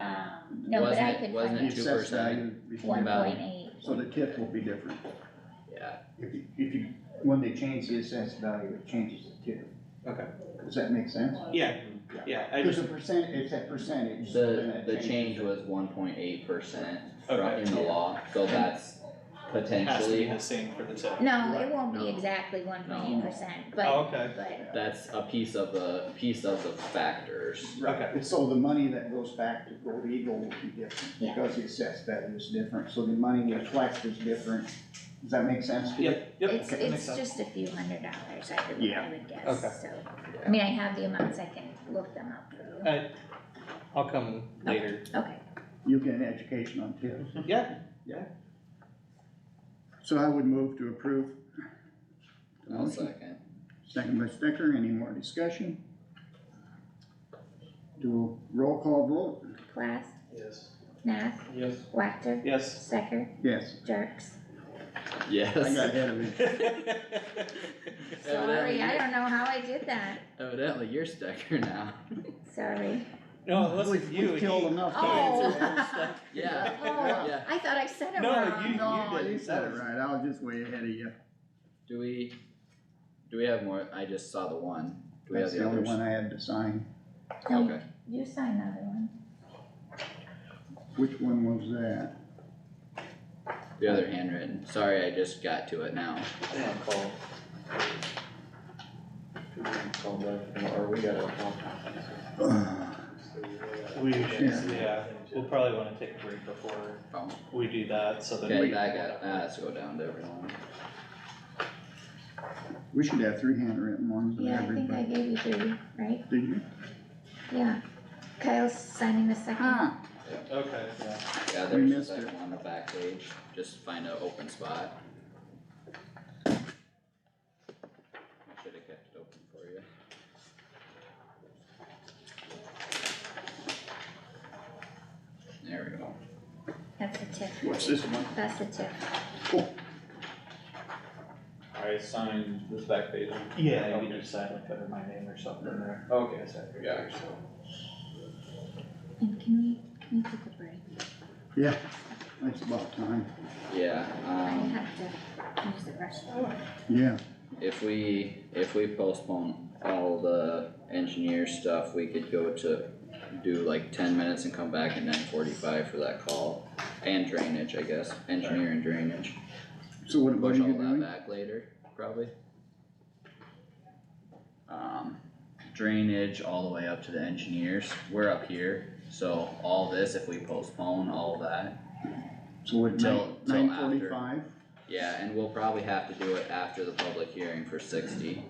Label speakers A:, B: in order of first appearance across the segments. A: No, but I
B: Wasn't it-
A: could
B: wasn't
A: find out.
B: it two-
C: The assessed
B: percent
C: value
A: One
C: reflects-
A: point
B: value.
A: eight.
C: So the TIF will be different.
B: yeah,
D: If you, if you, when they change the assessed value, it changes the TIF.
E: Okay.
D: Does that make sense?
E: Yeah, yeah, I
D: There's
E: just,
D: a percent, it's a percentage. and
B: the,
D: that
B: the
D: changes.
B: change was one point eight percent from,
E: Okay.
B: in the law, so that's
E: has to be
B: potentially,
E: the same for the tip.
A: No, it won't be
B: No.
A: exactly one point eight percent,
E: Oh,
A: but,
E: okay,
A: but,
B: that's a piece of the, piece of the factors.
E: okay,
D: And so the money that goes back to Gold Eagle will be different,
A: Yeah.
D: because the assessed value is different, so the money reflects is different. Does that make sense to you?
E: yep, yep.
A: it's,
E: that makes
A: it's
E: sense.
A: just a few hundred dollars, I would, I
D: Yeah.
A: would
E: Okay.
A: guess, so. I mean, I have the amounts, I can look them up for you.
E: Uh, I'll come later.
A: Okay,
D: You get an education on TIF.
E: Yeah,
D: So I would move to approve. the
B: I'll
D: motion.
B: second.
D: Second by Stecker, any more discussion? Do a roll call vote,
A: Class,
E: yes.
A: Nath,
E: Yes.
A: Wactor,
E: Yes.
A: Stecker,
D: yes,
A: Jerks.
B: Yes.
D: I got ahead of you.
A: Sorry, I don't know how I did that,
B: Evidently, you're stucker now.
A: sorry.
E: No, it wasn't
D: We've-
E: you,
D: we've
E: he,
D: killed enough.
E: he
A: Oh.
E: answered all the stuff.
B: Yeah,
A: Oh,
B: yeah.
A: I thought I said it
E: No,
A: wrong.
D: No,
E: did.
D: you said it right, I was just way ahead of you.
B: Do we, do we have more? I just saw the one. Do we have
D: That's
B: the
D: the only
B: others?
D: one I had to sign.
A: No,
B: Okay.
A: You sign the other one.
D: Which one was that?
B: The other handwritten. Sorry, I just got to it now.
E: We should, yeah, we'll probably wanna take a break before
B: Oh,
E: we do that, so that
B: Okay,
E: we.
B: that got, that has to go down to everyone.
D: We should have three handwritten ones of
A: Yeah, I think I
D: everybody.
A: gave you three, right?
D: Did you?
A: Yeah. Kyle's signing the second.
D: Ah,
E: Okay, yeah.
B: Yeah,
D: We
B: there's the
D: missed
B: second one on the back page. Just find an open spot. I should've kept it open for you. There we go.
A: That's the tip.
D: what's this one?
A: That's the tip.
F: I signed this back page.
E: Yeah, we just sign like under my name or something there.
F: Okay, I signed it, yeah, so.
A: And can we, can we take a break?
D: Yeah, that's about time.
B: Yeah,
A: I
B: um.
A: have to use the restroom.
D: Yeah,
B: If we, if we postpone all the engineer stuff, we could go to do like ten minutes and come back at nine forty-five for that call. And drainage, I guess, engineer and drainage,
D: so what, what are
B: push all
D: you
B: that
D: doing?
B: back later, probably. Um, drainage all the way up to the engineers, we're up here, so all this, if we postpone all that,
D: So what,
B: Till-
D: nine,
B: till
D: nine
B: after.
D: forty-five?
B: yeah, and we'll probably have to do it after the public hearing for sixty.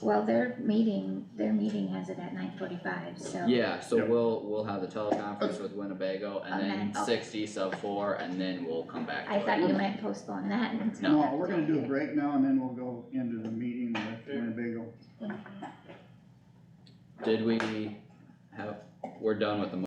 A: Well, their meeting, their meeting has it at nine forty-five, so.
B: Yeah, so
D: Yep.
B: we'll, we'll have the teleconference with Winnebago and
A: Okay,
B: then
A: oh.
B: sixty sub four and then we'll come back
A: I
B: to
A: thought
B: it.
A: you might postpone that and.
D: No, we're gonna do a break now and then we'll go into the meeting with Winnebago.
B: Did we have, we're done with the